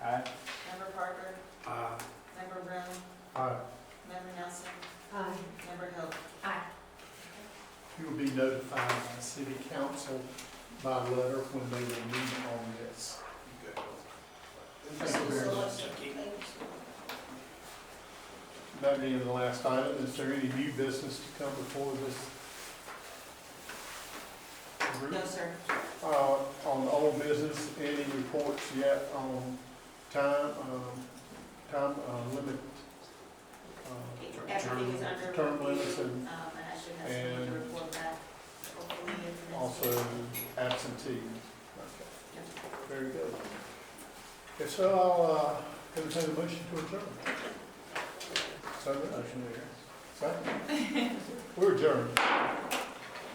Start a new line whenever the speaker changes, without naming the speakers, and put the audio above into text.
council by letter when they will meet on this. Thank you very much. That being the last item, is there any new business to come before this? group?
No, sir.
Uh, on old business, any reports yet on time, um, time, uh, limit? uh,
Everything is under.
Term limits and
Um, and I should have something to report back. hopefully in the next-
also absentee. Very good. If so, I'll, uh, entertain a motion to adjourn. So, motion there. Second. We're adjourned.